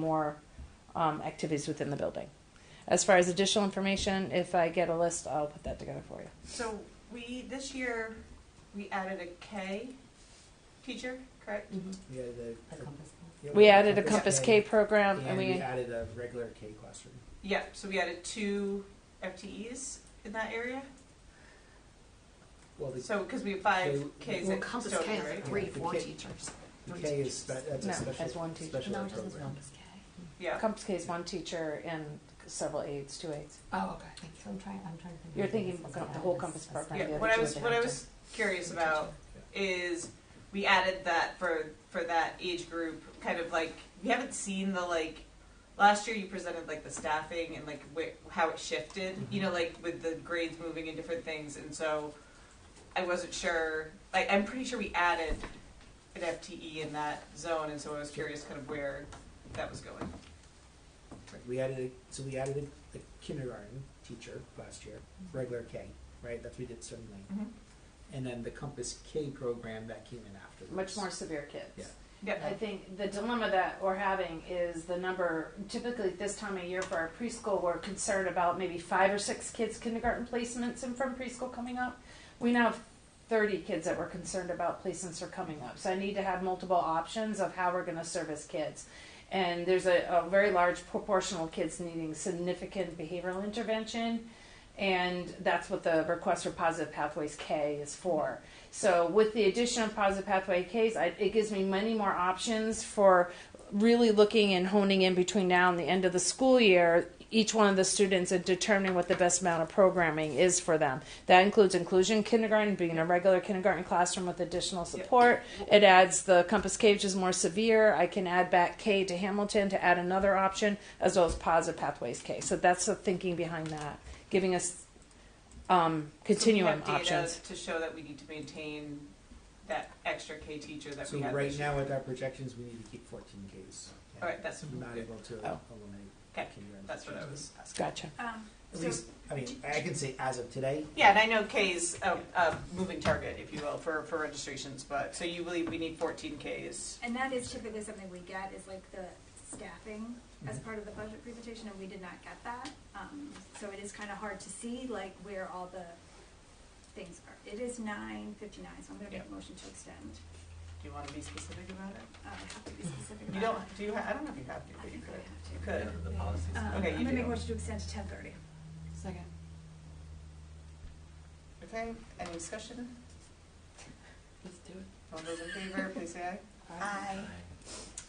more um, activities within the building. As far as additional information, if I get a list, I'll put that together for you. So we, this year, we added a K teacher, correct? Mm-hmm. Yeah, the, yeah, We added a Compass K K, program, and, and we we added a regular K classroom. Yep, so we added two FTEs in that area. Well, the, So, because we have five K- Ks Well, at Compass Stoughton, K is like right? three, Yeah, the four K- teachers. the Three K is teachers. spe- that's No, a special as one teacher. special No, ed it doesn't program. Compass K. Yeah, Compass K is one teacher and several aides, two aides. Oh, okay, thank So I'm trying, I'm trying to think. You're of this thinking as the an whole added- compass as program, the an yeah, other what I two was, would what I have was curious about Yeah. is we added that for, for that age group, kind of like, we haven't seen the like, last year you presented like the staffing and like wh- how it shifted, Mm-hmm. you know, like with the grades moving and different things, and so I wasn't sure, like, I'm pretty sure we added an FTE in that zone, and so I was curious kind of where that was going. Right, We added a, so we added a, a kindergarten teacher last year, regular K, right? That's what we did Stony Lane, Mhm. and then the Compass K program that came in afterwards. Much more severe kids. Yeah. Yeah. Uh, I think the dilemma that we're having is the number, typically at this time of year for our preschool, we're concerned about maybe five or six kids kindergarten placements and from preschool coming up. We now have thirty kids that we're concerned about placements are coming up, so I need to have multiple options of how we're gonna service kids. And there's a, a very large proportional kids needing significant behavioral intervention, and that's what the request for positive pathways K is for. So with the addition of positive pathway Ks, I, it gives me many more options for really looking and honing in between now and the end of the school year each one of the students and determining what the best amount of programming is for them. That includes inclusion kindergarten, being a regular kindergarten classroom with additional support. It adds the Compass K, which is more severe. I can add back K to Hamilton to add another option, as well as positive pathways K. So that's the thinking behind that, giving us um, continuum So we have data options. To show that we need to maintain that extra K teacher that So we have right this year. now with our projections, we need to keep 14 Ks. Yeah. All right, that's- not able to Oh. eliminate Okay, kindergarten. that's what I teachers. was asking. Gotcha. Um, At so- least, I mean, I can say as of today, Yeah, and I know K's a, a moving target, if you will, for, for registrations, but, so you believe we need fourteen Ks? And that is typically something we get, is like the staffing as Mm-hmm. part of the budget presentation, and we did not get that. Um, so it is kind of hard to see, like, where all the things are. It is nine fifty-nine, so I'm gonna make a motion to extend. Do you wanna be specific about it? Uh, I have to be specific You about it. don't, do you, ha- I don't know if you have to, I but you think I could. You have could. the policies. to. Um, Okay, you I'm gonna make do. a motion to extend to ten thirty. Second. Okay, any discussion? Let's do it. All those in favor, please say aye.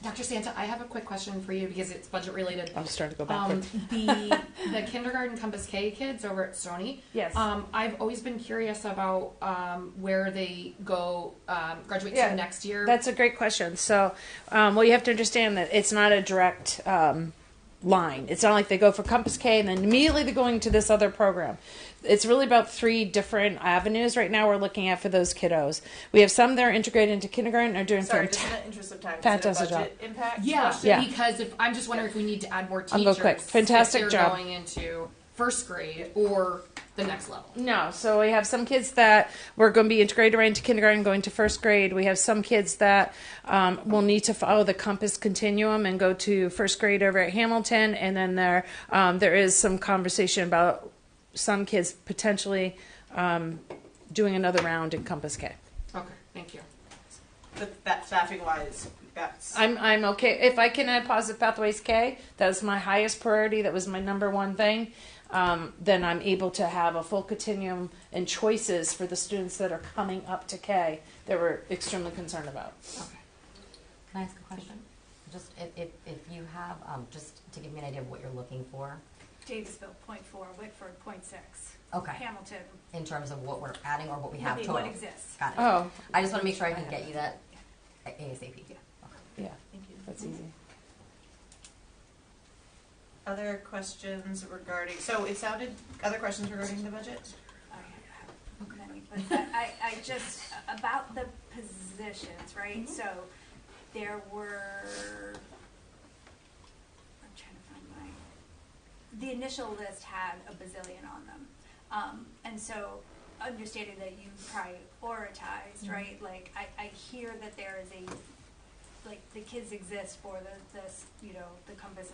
Dr. Santa, I have a quick question for you because it's budget related. I'm starting to go Um, backwards. the, the kindergarten Compass K kids over at Stony, yes. um, I've always been curious about, um, where they go, um, graduate Yeah. to next year. That's a great question. So, um, well, you have to understand that it's not a direct um, line. It's not like they go for Compass K and then immediately they're going to this other program. It's really about three different avenues right now we're looking at for those kiddos. We have some that are integrated into kindergarten are doing Sorry, just in fantastic. the interest of time, is it a Fantastic job. budget impact Yeah, question? Yeah. because if, I'm just wondering if we need to add more I'll teachers. go quick. Fantastic if they're job. going into first grade or the next level. No, so we have some kids that we're going to be integrated right into kindergarten, going to first grade. We have some kids that um, will need to follow the compass continuum and go to first grade over at Hamilton, and then there um, there is some conversation about some kids potentially um, doing another round in Compass K. Okay, thank you. But that staffing wise, that's. I'm I'm okay if I can add positive pathways K. That was my highest priority. That was my number one thing. Um, then I'm able to have a full continuum and choices for the students that are coming up to K that we're extremely concerned about. Okay. Can I ask a question? Just if, if, if you have, um, just to give me an idea of what you're looking for, Davisville, point four, Whitford, point six. Okay. Hamilton, in terms of what we're adding or what we would have be total. what exists. Got it. Oh, I just wanna make sure I can get you that ASAP. Yeah. yeah, Thank you. that's easy. Other questions regarding, so it sounded, other questions regarding the budget? I have many, but I, I I just, about the positions, right? So there were, I'm trying to find my, the initial list had a bazillion on them. Um, and so understanding that you prioritized, right? Like, I, I hear that there is a, like the kids exist for the, the, you know, the compass